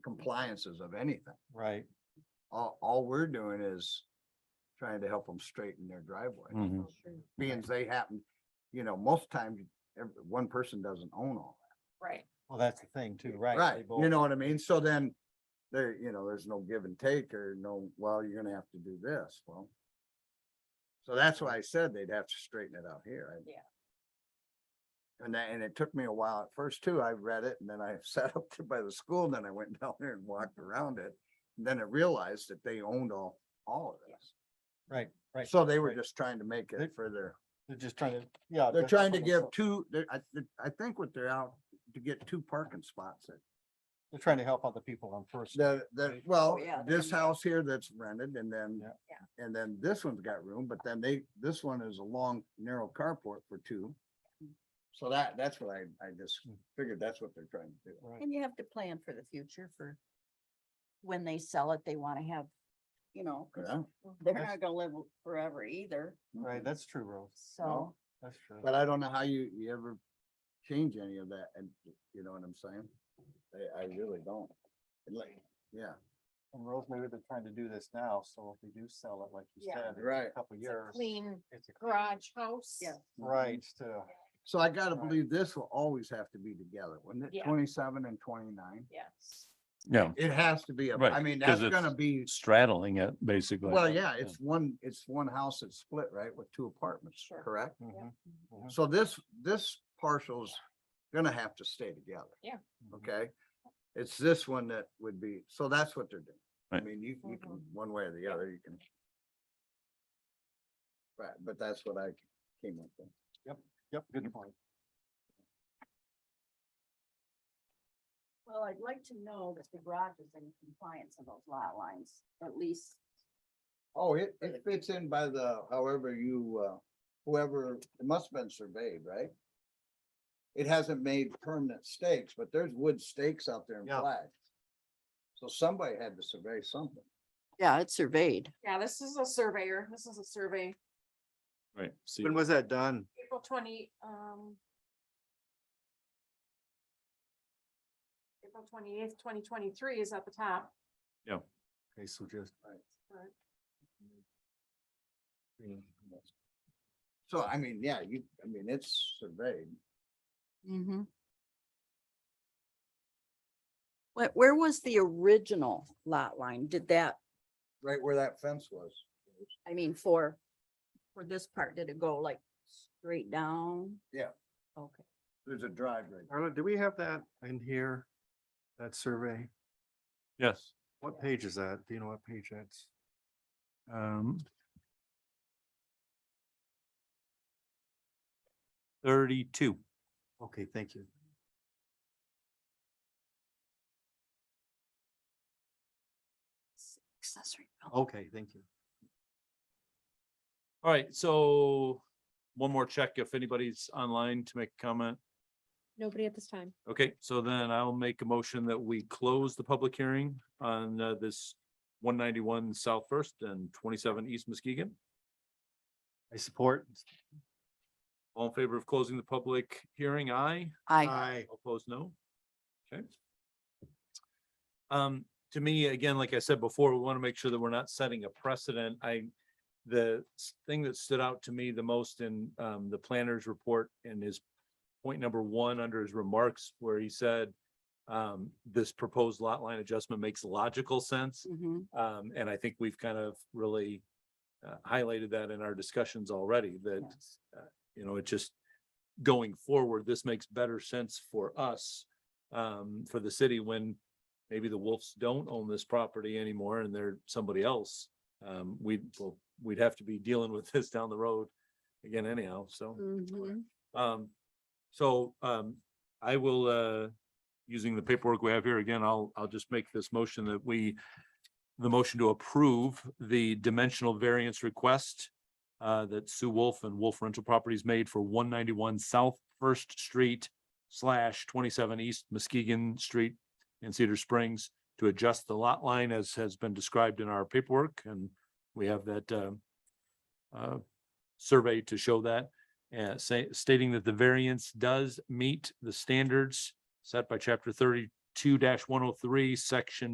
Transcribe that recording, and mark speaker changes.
Speaker 1: compliances of anything.
Speaker 2: Right.
Speaker 1: All, all we're doing is trying to help them straighten their driveway,
Speaker 3: Mm-hmm.
Speaker 2: Mhm.
Speaker 1: being they happen, you know, most times, ev- one person doesn't own all.
Speaker 4: Right.
Speaker 2: Well, that's the thing too, right?
Speaker 1: Right,
Speaker 2: they
Speaker 1: you
Speaker 2: both-
Speaker 1: know what I mean? So then there, you know, there's no give and take or no, well, you're gonna have to do this, well. So that's why I said they'd have to straighten it out here. I-
Speaker 4: Yeah.
Speaker 1: And that, and it took me a while at first too. I read it and then I sat up there by the school, and then I went down there and walked around it. And Then I realized that they owned all, all of
Speaker 4: Yeah.
Speaker 1: this.
Speaker 2: Right, right.
Speaker 1: So they were
Speaker 2: right.
Speaker 1: just trying to make
Speaker 2: They-
Speaker 1: it for their,
Speaker 2: They're just trying to, yeah.
Speaker 1: they're
Speaker 2: just
Speaker 1: trying to
Speaker 2: for
Speaker 1: give
Speaker 2: themselves.
Speaker 1: two, they're- I, I think what they're out to get two parking spots at
Speaker 2: They're trying to help other people on first.
Speaker 1: The, the,
Speaker 2: Right.
Speaker 1: well,
Speaker 4: Oh, yeah,
Speaker 1: this
Speaker 4: they're-
Speaker 1: house here that's rented and then,
Speaker 2: Yeah.
Speaker 4: Yeah.
Speaker 1: and then this one's got room, but then they, this one is a long, narrow carport for two.
Speaker 4: Mm.
Speaker 1: So that, that's what I, I just
Speaker 2: Mm.
Speaker 1: figured that's what they're trying to do.
Speaker 2: Right.
Speaker 4: And you have to plan for the future for when they sell it, they want to have, you know, 'cause
Speaker 1: Yeah.
Speaker 4: they're
Speaker 2: That's-
Speaker 4: not gonna live forever either,
Speaker 5: Mm-hmm.
Speaker 2: Right, that's true, Rose.
Speaker 4: so.
Speaker 2: That's true.
Speaker 1: But I don't know how you, you ever change any of that and, you know what I'm saying? I, I really don't. And Like, yeah,
Speaker 2: And Rose, maybe they're trying to do this now, so if they do sell it, like you
Speaker 4: Yeah.
Speaker 2: said, in a
Speaker 1: Right.
Speaker 2: couple
Speaker 5: It's a
Speaker 2: years.
Speaker 5: Clean
Speaker 2: it's a-
Speaker 5: garage house.
Speaker 4: Yeah.
Speaker 2: Right, to,
Speaker 1: so I gotta
Speaker 2: Right.
Speaker 1: believe this will always have to be together, wouldn't it?
Speaker 4: Yeah.
Speaker 1: Twenty-seven and twenty-nine.
Speaker 4: Yes.
Speaker 3: Yeah,
Speaker 1: It has to be, a-
Speaker 3: Right,
Speaker 1: I mean,
Speaker 3: 'cause
Speaker 1: that's gonna
Speaker 3: it's-
Speaker 1: be.
Speaker 3: straddling it basically.
Speaker 1: Well, yeah, it's one, it's one house that's split, right, with two apartments,
Speaker 4: Sure.
Speaker 1: correct?
Speaker 2: mhm, mhm.
Speaker 1: So this, this parcel's gonna have to stay together.
Speaker 4: Yeah.
Speaker 2: mm-hmm.
Speaker 1: Okay, it's this one that would be, so that's what they're doing. I
Speaker 3: Right.
Speaker 1: mean, you, you can, one way or the other, you can. Right, but that's what I came up with.
Speaker 2: Yep, good point.
Speaker 4: Well, I'd like to know that the garage is in compliance of those lot lines, at least.
Speaker 1: Oh, it, it fits in by the, however you, uh, whoever, it must have been surveyed, right? It hasn't made permanent stakes, but there's wood stakes out there in
Speaker 2: Yeah.
Speaker 1: flags. So somebody had to survey something.
Speaker 4: Yeah, it's surveyed.
Speaker 5: Yeah, this is a surveyor. This is a survey,
Speaker 3: Right. See,
Speaker 2: was that done?
Speaker 5: April twenty, um. April twenty eighth, twenty twenty three is at the top.
Speaker 2: Okay, so just.
Speaker 5: but-
Speaker 1: So I mean, yeah, you, I mean, it's surveyed.
Speaker 4: Mm-hmm. What, where was the original lot line? Did that,
Speaker 1: Right where that fence was.
Speaker 4: I mean, for, for this part, did it go like straight down?
Speaker 1: Yeah.
Speaker 4: Okay.
Speaker 1: There's a driveway.
Speaker 2: Arlen, do we have that in here? That survey?
Speaker 3: yes.
Speaker 2: What page is that? Do you know what page that's?
Speaker 3: um, Thirty-two.
Speaker 2: Okay, thank you.
Speaker 4: Accessory. building.
Speaker 2: Okay, thank you.
Speaker 3: All right, so one more check if anybody's online to make a comment.
Speaker 5: Nobody at this time.
Speaker 3: Okay, so then I'll make a motion that we close the public hearing on uh, this one ninety-one South First and twenty-seven East Muskegon.
Speaker 2: I support.
Speaker 3: All in favor of closing the public hearing, aye?
Speaker 4: I,
Speaker 2: I
Speaker 3: Opposed, no? Okay. Um, to me, again, like I said before, we want to make sure that we're not setting a precedent. I, the s- thing that stood out to me the most in, um, the planner's report and his point number one under his remarks where he said, um, this proposed lot line adjustment makes logical sense.
Speaker 4: Mhm.
Speaker 3: Um, and I think we've kind of really uh, highlighted that in our discussions already, that,
Speaker 4: Yes.
Speaker 3: uh, you know, it just going forward, this makes better sense for us, um, for the city when maybe the Wolves don't own this property anymore and they're somebody else. Um, we, well, we'd have to be dealing with this down the road again anyhow, so.
Speaker 4: Mhm.
Speaker 3: Um, so, um, I will, uh, using the paperwork we have here again, I'll, I'll just make this motion that we, the motion to approve the dimensional variance request uh, that Sue Wolf and Wolf Rental Properties made for one ninety-one South First Street slash twenty-seven East Muskegon Street in Cedar Springs to adjust the lot line as has been described in our paperwork, and we have that, uh, uh, survey to show that uh, say, stating that the variance does meet the standards set by chapter thirty two one oh three, section